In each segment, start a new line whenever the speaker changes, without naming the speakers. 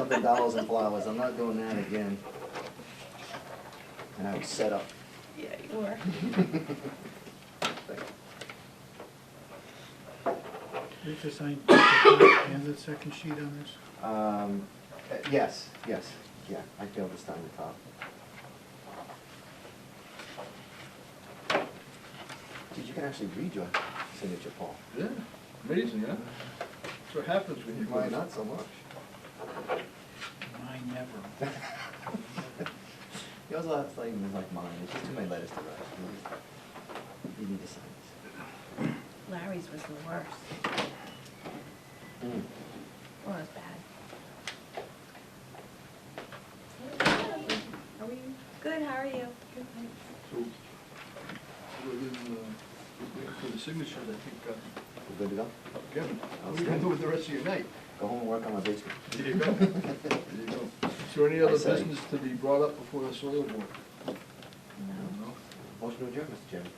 the dolls and flowers, I'm not doing that again. And I was set up.
Yeah, you were.
We have to sign and the second sheet on this.
Um, uh, yes, yes, yeah, I feel this time to top. Dude, you can actually read your signature, Paul.
Yeah, amazing, huh? That's what happens when you.
Mine not so much.
Mine never.
Yours last name is like mine, it's just too many letters to write. You need to sign
Larry's was the worst.
this.
Well, it was bad. Are we good? How are you?
So, we're in, uh, waiting for the signatures, I think, uh,
We good to go?
Kevin, what are you gonna do with the rest of your night?
Go home and work on my basement.
There you go. There you go. Is there any
I
other
say.
business to be brought up before the soil board?
No.
No?
Motion to adjourn, Mr. Chairman.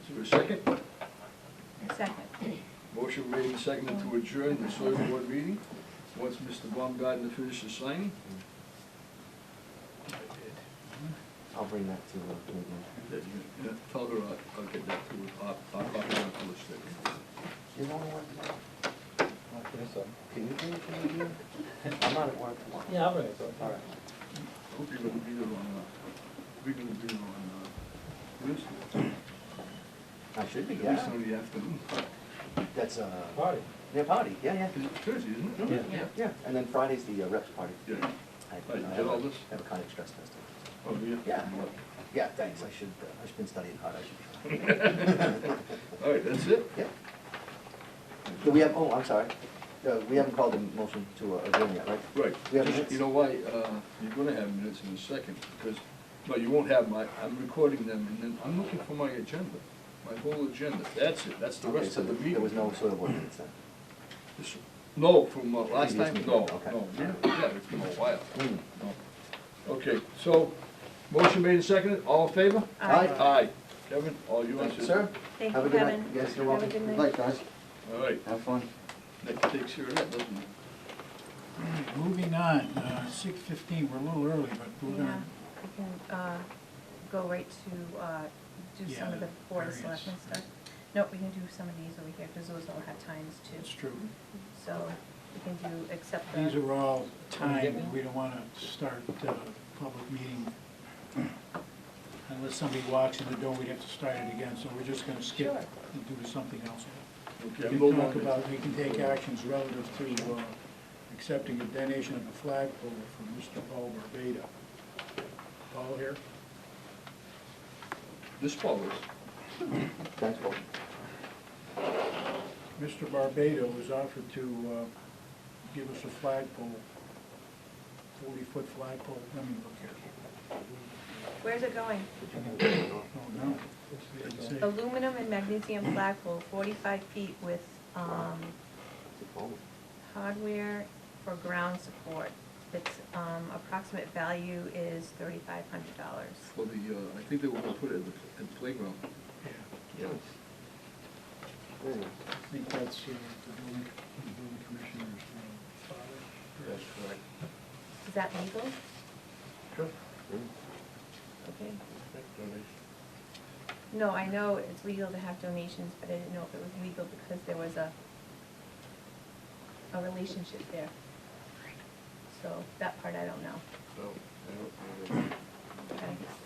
Is there a second?
Second.
Motion made and seconded to adjourn the soil board meeting. Once Mr. Baumgartner finishes signing.
I'll bring that to, uh, Caitlin.
that you- yeah, Tell her I'll, I'll get that to her, I'll, I'll copy that to her. second.
You wanna work tomorrow? Can you do it, can you do it? I'm not at work tomorrow.
Yeah, I'll bring it to
All right.
Hope you're gonna be there on, uh, we're gonna be there on, uh, Wednesday.
I should be,
At least
yeah.
on the afternoon.
That's, uh,
Party.
their party, yeah, yeah.
Is it Thursday, isn't it?
Yeah.
Yeah, and then Friday's the uh, reps party.
Yeah.
I-
Right,
I
get
have a-
all this?
I have a conic stress test.
Oh, yeah.
Yeah. Yeah, thanks, I should, uh, I've been studying hard, I should.
All right, that's it?
Yeah. Do we have, oh, I'm sorry, Uh, we haven't called a motion to uh, adjourn yet, right?
Right.
We have
Just-
minutes?
You know why, uh, you're gonna have minutes in a second, because, no, you won't have my, I'm recording them, and then I'm looking for my agenda, my whole agenda. That's it, that's the
Okay,
rest
so
of the meeting.
There was no soil board minutes then?
This- No, from uh, last
Previous
time,
meeting,
no,
okay.
no, yeah, yeah, it's been a while.
Hmm.
No. Okay, so, motion made and seconded, all in favor?
Aye.
Aye. Kevin, all yours.
Thank you, sir.
Thank
Have
you,
a good night.
Kevin.
You guys are
Have a
welcome.
good night.
guys.
All right,
Have fun.
that takes care of that, doesn't it?
All right, Moving on, uh, six fifteen, we're a little early, but we're
Yeah,
gonna,
we can, uh, go right to, uh, do
Yeah,
some of the
the
board of
variance.
selectmen stuff. No, we can do some of these over here, because those all have times
it's
too.
true.
So we can do, except
These
the,
are all timed, we don't wanna start uh public meeting. Unless somebody walks in the door, we'd have to start it again, so we're just gonna skip
Sure.
and do something else. We
Okay, I'm
can
no
talk
longer.
about, we can take actions relative to uh, accepting a donation of a flagpole from Mr. Paul Barbada. Paul here?
This follows.
Thanks, Paul.
Mr. Barbado was offered to uh, give us a flagpole, forty-foot flagpole, let me look here.
where's it going?
Oh, no. It didn't say.
Aluminum and magnesium flagpole, forty-five feet with, um, hardware for ground support. Its, um, approximate value is thirty-five hundred dollars.
For the, uh, I think they want to put it at the at the playground.
Yeah,
Yes. Very nice.
I think that's uh, the building, the building commissioner's uh, father.
That's correct.
Is that legal?
Sure.
Mm.
Okay. No, I know it's legal to have donations, but I didn't know if it was legal because there was a, a relationship there. So that part I don't know. Okay.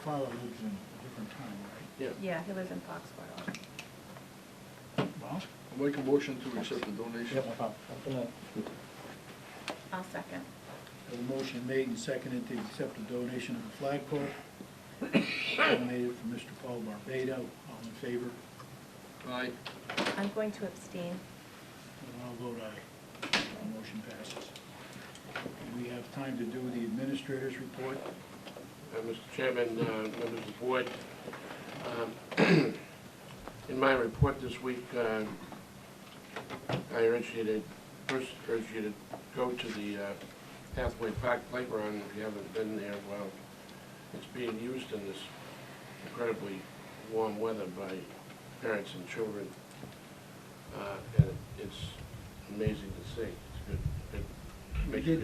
Father lives in a different time,
Yeah.
Yeah, he lives in Foxborough.
right? Well,
I'll Make a motion to accept the donation.
I'll second.
a motion made and seconded to accept a donation of a flagpole donated from Mr. Paul Barbado. All in favor?
Aye.
I'm going to abstain.
And I'll vote aye. Our motion passes. We have time to do the administrator's report.
Uh, Mr. Chairman, uh, members of the board, um, in my report this week, uh, I urge you to, first urge you to go to the uh, Hathaway Park Playground if you haven't been there. Well, it's being used in this incredibly warm weather by parents and children. Uh, And it's amazing to see. It's a good, good Make sure you